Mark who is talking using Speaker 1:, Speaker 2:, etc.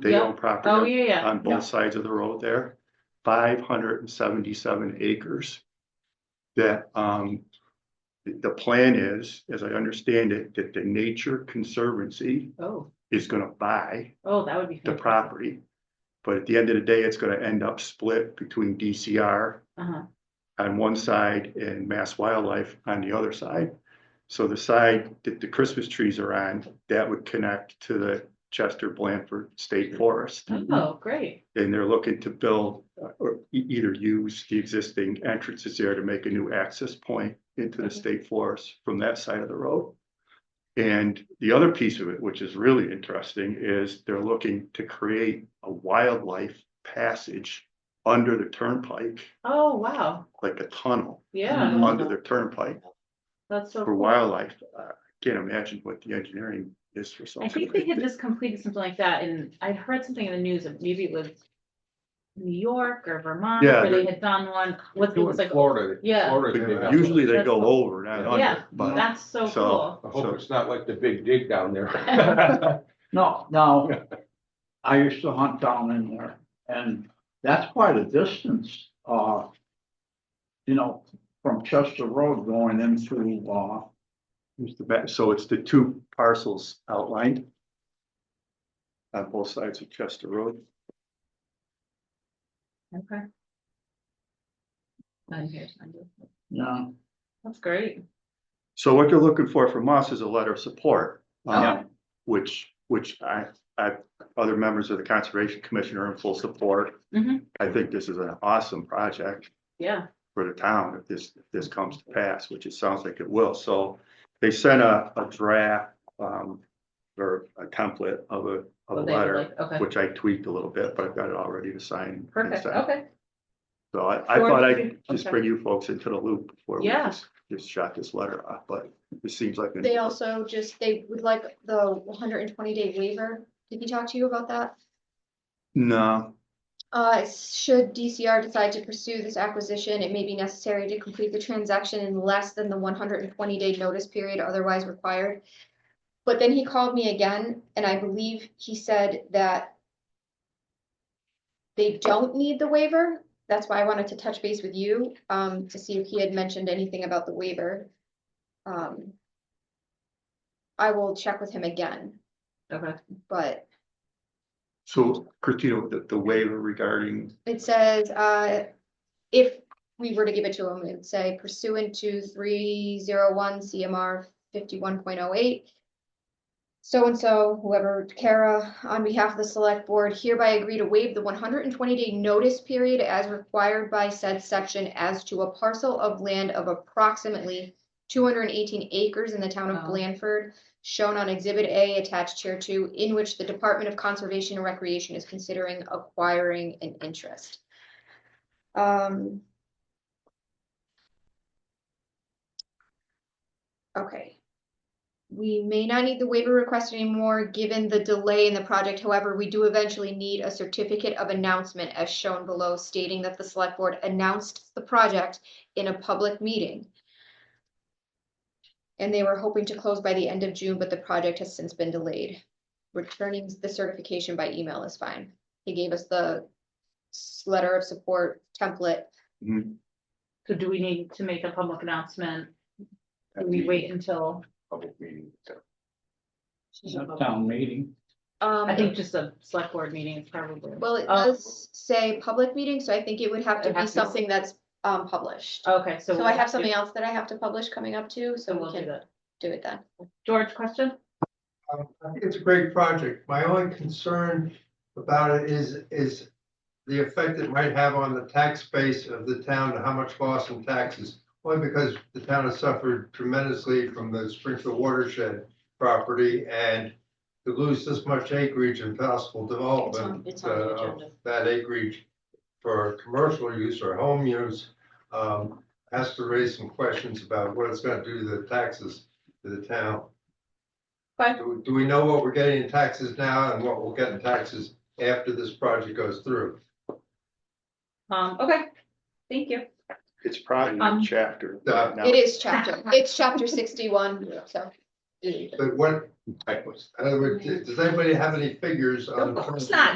Speaker 1: They
Speaker 2: Yeah.
Speaker 1: own
Speaker 2: Oh,
Speaker 1: property
Speaker 2: yeah, yeah.
Speaker 1: on both sides of the road there, five hundred and seventy-seven acres. That, um, the, the plan is, as I understand it, that the Nature Conservancy
Speaker 2: Oh,
Speaker 1: is gonna buy
Speaker 2: oh, that would be.
Speaker 1: the
Speaker 2: fantastic.
Speaker 1: property. But at the end of the day, it's gonna end up split between DCR
Speaker 2: Uh-huh.
Speaker 1: on one side and Mass Wildlife on the other side. So the side that the Christmas trees are on, that would connect to the Chester Blanford State Forest.
Speaker 2: Oh, great.
Speaker 1: And they're looking to build uh, or e- either use the existing entrances there to make a new access point into the
Speaker 2: Okay.
Speaker 1: state forest from that side of the road. And the other piece of it, which is really interesting, is they're looking to create a wildlife passage under the turnpike,
Speaker 2: Oh, wow.
Speaker 1: like a tunnel
Speaker 2: Yeah,
Speaker 3: Mhm.
Speaker 1: under their turnpike
Speaker 2: that's so.
Speaker 1: for
Speaker 2: cool.
Speaker 1: wildlife. Uh, I Can't imagine what the engineering is for
Speaker 2: I
Speaker 1: something.
Speaker 2: think they
Speaker 1: like
Speaker 2: had
Speaker 1: that.
Speaker 2: just completed something like that and I heard something in the news of maybe it was New York or Vermont
Speaker 1: Yeah,
Speaker 2: where they had done one with, it was like,
Speaker 3: Florida.
Speaker 2: Yeah.
Speaker 3: Florida did
Speaker 1: But
Speaker 3: that.
Speaker 1: Usually they
Speaker 2: That's
Speaker 1: go
Speaker 2: cool.
Speaker 1: over, not
Speaker 2: Yeah.
Speaker 1: under, but
Speaker 2: that's so
Speaker 1: So-
Speaker 2: cool.
Speaker 3: I hope it's not like the big dig down there.
Speaker 4: No, no. I used to hunt down in there and that's quite a distance, uh. You know, from Chester Road going into, uh,
Speaker 1: here's the map. so it's the two parcels outlined on both sides of Chester Road.
Speaker 2: Okay. Nine years, nine years.
Speaker 4: yeah,
Speaker 2: That's great.
Speaker 1: So what they're looking for from us is a letter of support. um,
Speaker 4: Yeah.
Speaker 1: Which, which I, I, other members of the Conservation Commission are in full support.
Speaker 2: Mhm.
Speaker 1: I think this is an awesome project.
Speaker 2: Yeah,
Speaker 1: for the town if this, if this comes to pass, which it sounds like it will. So they sent a, a draft, um, or a template of a, of a
Speaker 2: well, they were
Speaker 1: letter,
Speaker 2: like, okay,
Speaker 1: which I tweaked a little bit, but I've got it all ready to sign. and
Speaker 2: perfect,
Speaker 1: send.
Speaker 2: okay,
Speaker 1: So I, I
Speaker 2: Or
Speaker 1: thought
Speaker 2: if
Speaker 1: I'd
Speaker 2: you-
Speaker 1: just
Speaker 2: okay.
Speaker 1: bring you folks into the loop before we
Speaker 2: Yeah.
Speaker 1: just, just shot this letter off, but it seems like.
Speaker 5: They also just, they would like the one hundred and twenty day waiver. Did he talk to you about that?
Speaker 1: No,
Speaker 5: Uh, should DCR decide to pursue this acquisition, it may be necessary to complete the transaction in less than the one hundred and twenty day notice period otherwise required. But then he called me again, and I believe he said that they don't need the waiver. That's why I wanted to touch base with you, um, to see if he had mentioned anything about the waiver. Um, I will check with him again,
Speaker 2: okay.
Speaker 5: but
Speaker 1: so Christina, the, the waiver regarding,
Speaker 5: It says, uh, if we were to give it to him, it'd say pursuant to three zero one CMR fifty-one point oh eight. So-and-so, whoever, Kara, on behalf of the select board hereby agree to waive the one hundred and twenty day notice period as required by said section as to a parcel of land of approximately two hundred and eighteen acres in the town of
Speaker 2: Wow.
Speaker 5: Blandford, shown on exhibit A attached here to, in which the Department of Conservation and Recreation is considering acquiring an interest. Um. Okay. We may not need the waiver request anymore, given the delay in the project. However, we do eventually need a certificate of announcement as shown below stating that the select board announced the project in a public meeting. And they were hoping to close by the end of June, but the project has since been delayed. Returning the certification by email is fine. He gave us the s- letter of support template.
Speaker 1: mm,
Speaker 2: So do we need to make a public announcement? Do we wait until,
Speaker 3: Public meeting.
Speaker 4: that town meeting.
Speaker 5: Um,
Speaker 2: I think just a select board meeting is probably.
Speaker 5: well, it
Speaker 2: Oh,
Speaker 5: does say public meeting, so I think it would have
Speaker 2: It
Speaker 5: to be
Speaker 2: has to be-
Speaker 5: something that's um published.
Speaker 2: Okay, so.
Speaker 5: So
Speaker 2: we'll
Speaker 5: I have
Speaker 2: do-
Speaker 5: something else that I have to publish coming up too,
Speaker 2: So
Speaker 5: so we
Speaker 2: we'll do
Speaker 5: can
Speaker 2: that.
Speaker 5: do it then.
Speaker 2: George, question?
Speaker 6: Um, I think it's a great project. My only concern about it is, is the effect it might have on the tax base of the town, how much loss in taxes. One, because the town has suffered tremendously from the Springfield watershed property and to lose this much acreage in possible development. uh, of That acreage for commercial use or home use, um, has to raise some questions about what it's gonna do to the taxes to the town. Do, do we know what we're getting in taxes now and what we'll get in taxes after this project goes through?
Speaker 2: Um, okay, thank you.
Speaker 1: it's probably in
Speaker 2: Um,
Speaker 1: the chapter. right
Speaker 6: Uh,
Speaker 1: now.
Speaker 5: It is chapter, it's chapter sixty-one, so
Speaker 6: But what,
Speaker 1: Typos.
Speaker 6: in other words, does anybody have any figures on?
Speaker 2: Of course not,